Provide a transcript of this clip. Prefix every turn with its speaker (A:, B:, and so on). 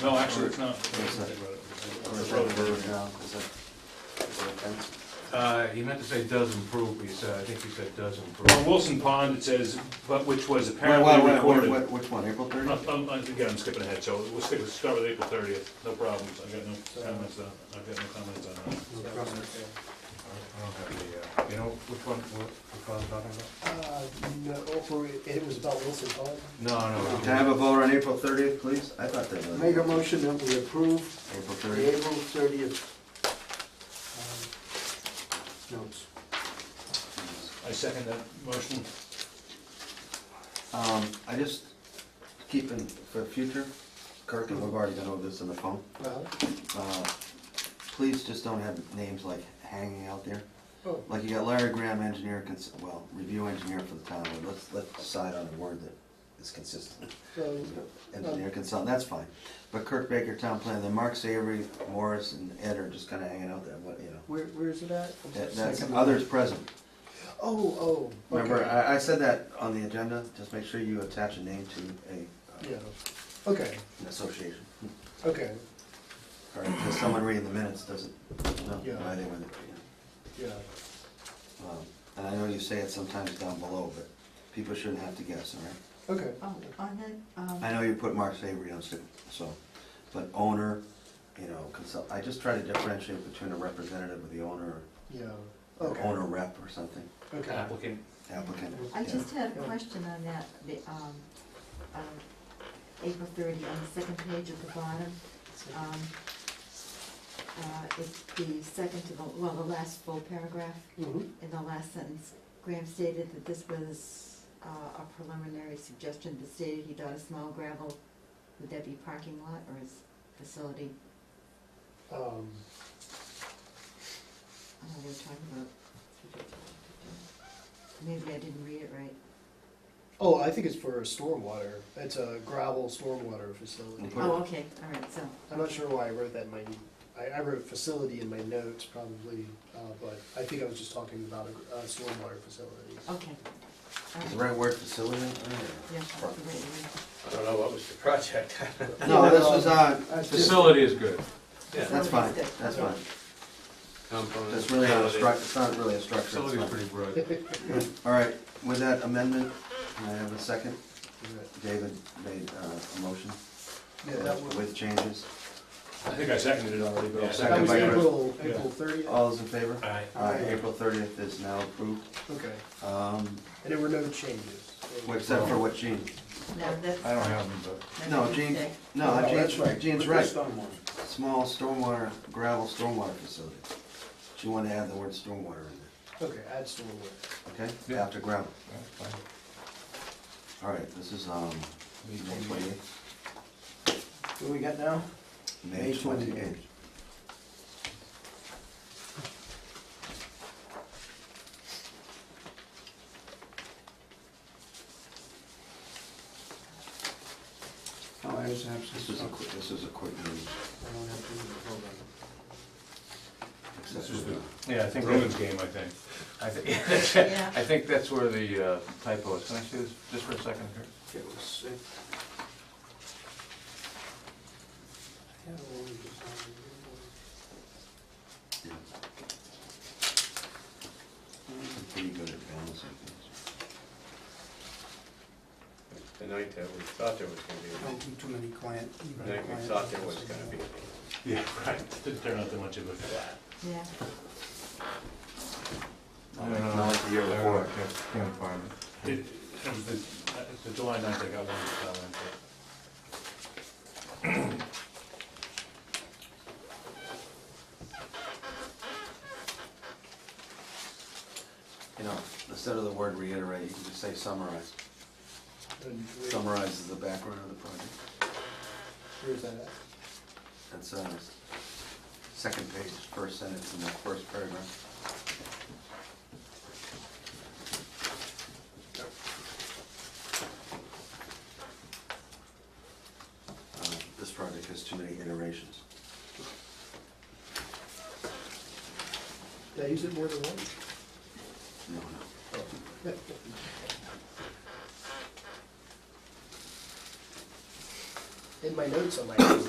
A: No, actually, it's not.
B: Yes, sir. Or is
A: It's a
B: that a
A: road.
B: verb now? Is that, is that a fence?
C: Uh, he meant to say does improve, but he said, I think he said does
A: On
C: improve.
A: Wilson Pond, it says, but which was
B: Wait, wait,
A: apparently
B: wait, wait,
A: recorded.
B: wait, Which one, April
A: I'm
B: thirtieth?
A: not- I'm- I'm- Again, I'm skipping ahead, so we'll stick with, start with April thirtieth, no problems, I've got no comments on, I've got no comments on that.
C: I don't have the, uh, You know which one, what, which one I'm talking about?
D: Uh, no, for, it was about Wilson Pond.
C: No, no.
B: Can I have a vote on April thirtieth, please? I thought that was.
D: Make a motion that we approve
B: April
D: the
B: thirtieth.
D: April thirtieth uh, notes.
A: I second that motion.
B: Um, I just, keeping for future, Kirk, and we've already gone over this on the phone.
D: Well,
B: uh, Please just don't have names like hanging out there.
D: oh,
B: Like you got Larry Graham, engineer, cons- well, review engineer for the town, but let's, let's decide on a word that is consistent.
D: so,
B: Engineer consultant, that's fine. But Kirk Baker, town planner, then Mark Savory, Morris, and Ed are just kinda hanging out there, what, you know.
D: where, where is it at? I'm
B: That-
D: sorry.
B: That's
D: Second.
B: others present.
D: Oh, oh,
B: Remember,
D: okay.
B: I, I said that on the agenda, just make sure you attach a name to a,
D: Yeah,
B: uh,
D: okay,
B: an association.
D: okay,
B: Or if someone reading the minutes doesn't know
D: Yeah.
B: why they were there. you
D: yeah,
B: know. Um, And I know you say it sometimes down below, but people shouldn't have to guess, all right?
D: okay.
E: Oh, on that, um,
B: I know you put Mark Savory on stick, so, but owner, you know, consult, I just try to differentiate between a representative of the owner,
D: Yeah,
B: or
D: okay,
B: owner rep or something,
D: okay.
A: Applicant.
B: applicant.
E: I
B: yeah.
E: just had a question on that, the, um, um, April thirty, on the second page at the bottom. um, uh, It's the second to the, well, the last full paragraph
D: Mhm.
E: in the last sentence. Graham stated that this was uh, a preliminary suggestion, but stated he thought a small gravel, would that be parking lot or his facility?
D: Um,
E: I don't know, we were talking about. Maybe I didn't read it right.
D: Oh, I think it's for stormwater, it's a gravel stormwater facility.
B: Okay.
E: Oh, okay, all right, so.
D: I'm not sure why I wrote that in my, I, I wrote facility in my notes probably, uh, but I think I was just talking about a, a stormwater facility.
E: Okay. All
B: Is the
E: right.
B: right word facility? or-
E: Yeah, that's the right word.
F: I don't know what was the project.
B: No, this was, uh,
D: That's just-
C: Facility is good.
B: that's fine, that's fine.
F: Component.
B: That's really not a struct, it's not really a structure. it's
C: Facility is
B: fine.
C: pretty broad.
B: All right, with that amendment, can I have a second? David made uh, a motion
D: Yeah, that was,
B: with changes.
A: I think I seconded it already, but. I'll
D: that
A: second
D: was
B: by Chris.
D: April, April thirtieth,
B: All those in favor?
A: it. All right.
B: Uh, April thirtieth is now approved,
D: okay,
B: um,
D: and there were no changes.
B: except for what Gene
E: No, that's.
C: I don't have them, but.
B: No,
E: that's a
B: Gene,
E: mistake.
B: no,
D: No, Oh, that's
B: Gene's,
D: right.
B: Gene's right. Small stormwater, gravel stormwater facility. She wanted to add the word stormwater in
D: Okay, add stormwater.
B: there, okay?
C: Yeah.
B: After gravel.
C: that's uh, fine.
B: All right, this is, um, May twenty-eighth.
D: What do we got now?
B: May
D: May 28th.
B: twenty-eighth.
D: Oh, I was
B: This is a quick, this is a quick meeting.
C: This is the, yeah, I think,
A: Bruins
C: that-
A: game, I think.
C: I think,
E: Yeah.
C: I think that's where the uh, typo is. Can I see this just for a second here?
B: Yeah. I'm Pretty good at balancing things.
F: The night that we thought there was gonna
D: do too many client.
F: be, the night we thought there was gonna be.
A: Yeah, right. Didn't turn out that much of a.
E: Yeah,
C: No, no, no.
B: Not like the year before.
C: Can't- Can't find it.
A: It, it was the, uh, the July ninth, I got one comment.
B: You know, instead of the word reiterate, you can just say summarize. Summarizes the background of the project.
D: Where's that at?
B: That's, uh, second page, first sentence in the first paragraph. Uh, This project has too many iterations.
D: Did I use it more than once?
B: No, no.
D: In my notes on my.